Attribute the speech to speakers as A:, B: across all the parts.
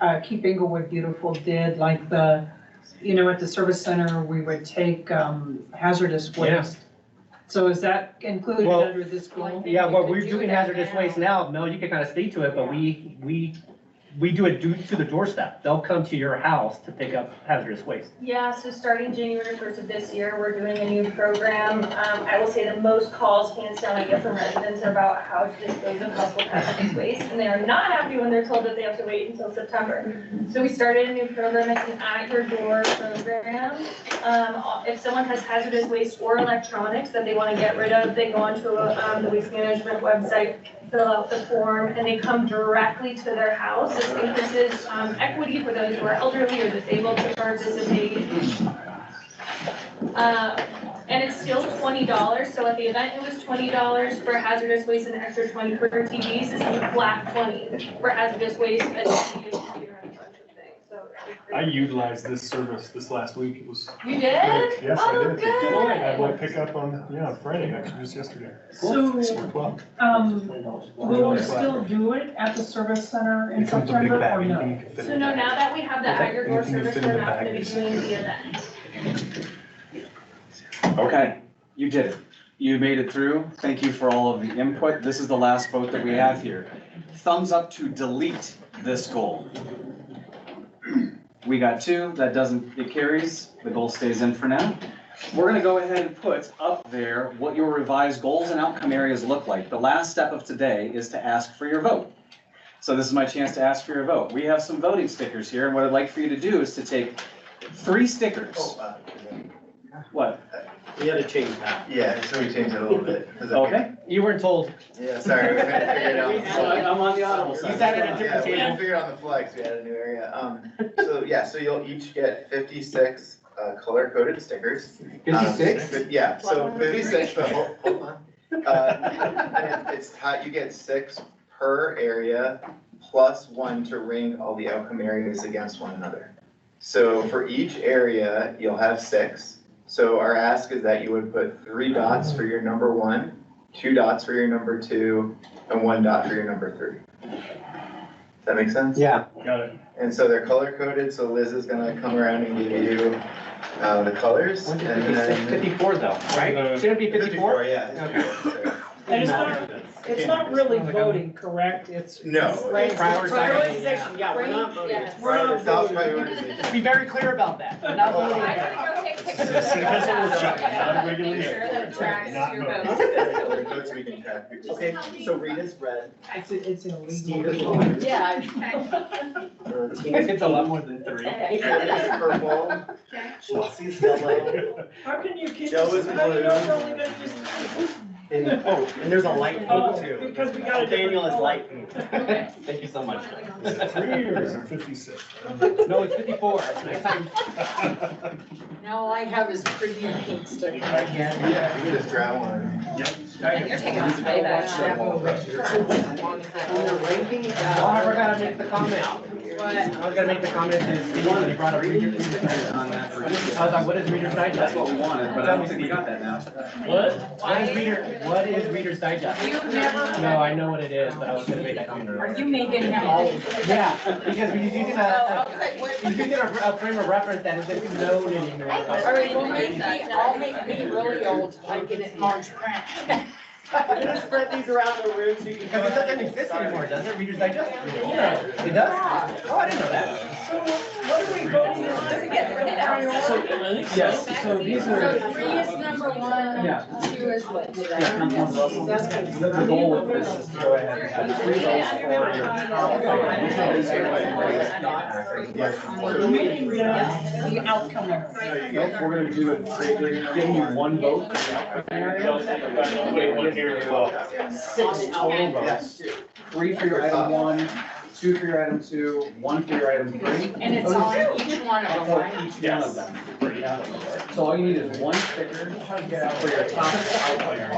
A: uh, Keep Inglewood Beautiful did, like the, you know, at the service center, we would take um, hazardous waste. So is that included
B: Well-
A: under this goal?
B: Yeah,
C: We
B: well,
C: could
B: we're
C: do
B: doing
C: that
B: hazardous
C: now.
B: waste now, Mel, you can kind of speak to it, but we, we, we do it due to the doorstep. They'll come to your house to pick up hazardous waste.
C: Yeah, so starting January first of this year, we're doing a new program. Um, I will say the most calls, hands down, I get from residents are about how to dispose of household hazardous waste. And they are not happy when they're told that they have to wait until September. So we started a new program, it's an at your door program. Um, if someone has hazardous waste or electronics that they want to get rid of, they go onto, um, the waste management website, fill out the form, and they come directly to their house. This increases, um, equity for those who are elderly or disabled to participate. Uh, And it's still twenty dollars, so at the event, it was twenty dollars for hazardous waste and extra twenty for TVs, it's a flat twenty for hazardous waste and TVs, computer, and a bunch of things, so.
D: I utilized this service this last week. It was.
C: You did?
D: Yes,
C: Oh,
D: I did.
C: good.
D: I had my pickup on, yeah, on Friday, actually, just yesterday.
A: So,
D: Well,
A: um, will we still do it at the service center in September or no?
C: So no, now that we have the aggregate service, we're not gonna be doing the event.
E: Okay, you did it. You made it through. Thank you for all of the input. This is the last vote that we have here. Thumbs up to delete this goal. We got two. That doesn't, it carries. The goal stays in for now. We're gonna go ahead and put up there what your revised goals and outcome areas look like. The last step of today is to ask for your vote. So this is my chance to ask for your vote. We have some voting stickers here, and what I'd like for you to do is to take three stickers. What?
F: We had to change that.
G: Yeah, so we changed it a little bit. 'cause I-
E: Okay,
B: You weren't told.
G: Yeah, sorry, we had to figure it out. on the
E: so
G: fly.
E: I'm on the audible
B: You
E: side.
B: sat at a
G: Yeah,
B: different
G: we had to
B: table.
G: figure it out on the fly, 'cause we had a new area. Um, so, yeah, so you'll each get fifty-six, uh, color-coded stickers. Um, but- Yeah, so fifty-six, but hold, hold on. Uh, and it- it's ti you get six per area, plus one to ring all the outcome areas against one another. So for each area, you'll have six. So our ask is that you would put three dots for your number one, two dots for your number two, and one dot for your number three. Does that make sense?
B: Yeah.
D: Got it.
G: And so they're color coded, so Liz is gonna come around and give you, uh, the colors. and then-
B: Fifty-four though, right?
D: Uh,
B: Shouldn't it be fifty-four?
G: yeah. it's 54,
A: And it's not, it's not really voting, correct? It's.
G: so- No.
A: Right.
B: Prioritization, yeah, we're not voting.
C: Yes.
A: We're not
G: Top
A: voting.
G: priority.
B: Be very clear about that. We're not voting.
C: I gotta go take pictures.
D: This is a job, not a regular
C: Make sure that it tracks
D: Not
C: your
D: voting.
C: vote.
G: Color codes we can track.
F: Okay, so Rita's red,
A: It's, it's
F: Steve
A: illegal.
F: is blue.
C: Yeah.
F: or Tina's
B: a lot more than three.
G: Liz is purple.
F: Chelsea's yellow,
A: How can you kid
F: Joe
A: yourself?
F: is
A: How do you know it's
F: blue.
A: only gonna just-
F: and, oh, and there's a light
A: Oh,
F: pink too.
A: Because we got a. different
F: Daniel is
A: color.
F: light pink.
B: Thank you so much.
D: Three years and fifty-six.
B: No, it's fifty-four. Next time,
H: Now all I have is pretty pink sticker again.
G: Yeah, you can just grab one.
H: You're taking off my
B: when they're ranking,
F: uh,
B: Oh, I forgot to make the comment. I was gonna make the comment that you wanted, you brought up reader's digest on that. I was like, what is reader's digest?
E: That's what we wanted, but I don't think we got that now.
B: What? What is reader, what is reader's digest?
H: You've never-
B: No, I know what it is, but I was gonna make that comment.
H: you making
B: Yeah, because we using
H: Oh,
B: a,
H: okay, wait,
B: we're using a a frame of reference that isn't known anymore.
H: All right, well, make me, I'll make me really old, I get it in large print.
F: Just spread these around the room so you can.
B: Because it doesn't exist anymore, does it? Reader's digest?
H: Yeah.
B: It does? Oh, I didn't know that. Yes, so these
H: So three is number
B: Yeah.
H: one, two is what?
B: The goal of this is to go ahead and have three votes for your.
A: Yeah, the outcome of it.
E: Nope, we're gonna do it, we're giving you one vote. Six total votes. Three for your item one, two for your item two, one for your item three.
H: And it's on each one of them,
E: For
H: right?
E: each one of them. So all you need is one sticker for your top outlier,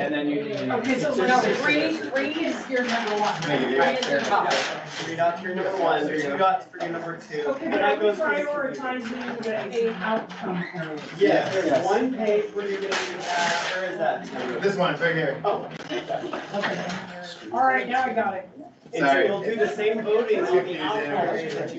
E: and then you need.
A: Okay, so
H: No,
A: now
H: three, three is your number one.
G: No, you do.
H: Right, your top.
F: Three dots for your number one, two dots for your number two.
A: Okay,
F: and
A: but
F: that
A: I'm
F: goes for your-
A: prioritizing the outcome area.
F: Yeah, there's
E: Yes.
F: one page where you're gonna, uh, where is that?
G: This one's right here.
F: Oh,
A: All right, now I got it.
F: And so
G: Sorry.
F: we'll do the same voting on the
G: Confusing.
F: outliers that you